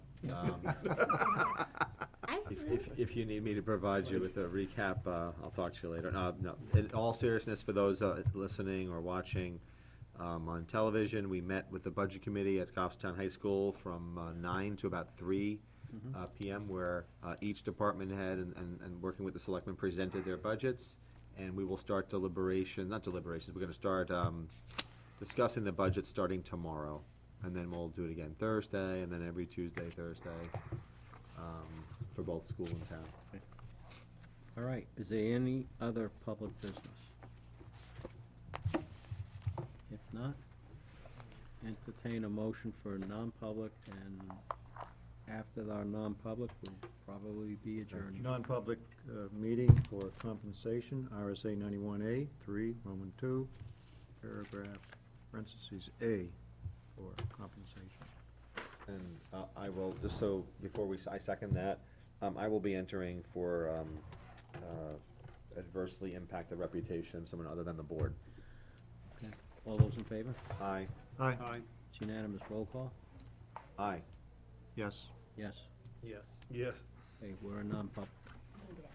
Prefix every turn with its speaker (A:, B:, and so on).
A: Um,
B: I
A: If, if, if you need me to provide you with a recap, uh, I'll talk to you later. No, no, in all seriousness, for those, uh, listening or watching, um, on television, we met with the budget committee at Goffstown High School from, uh, nine to about three, uh, PM, where, uh, each department head and, and, and working with the selectmen presented their budgets. And we will start deliberation, not deliberations, we're gonna start, um, discussing the budget starting tomorrow. And then we'll do it again Thursday, and then every Tuesday, Thursday, um, for both school and town.
C: All right, is there any other public business? If not, entertain a motion for non-public, and after our non-public, we'll probably be adjourned.
D: Non-public uh, meeting for compensation, RSA ninety-one A, three, Roman two, paragraph, parentheses, A, for compensation.
A: And uh, I will, just so, before we, s- I second that, um, I will be entering for um, uh, adversely impact the reputation of someone other than the board.
C: Okay. All those in favor?
A: Aye,
D: Aye,
C: It's unanimous, roll call?
A: aye.
D: yes.
C: Yes,
E: Yes. Yes.
C: okay, we're a non-public.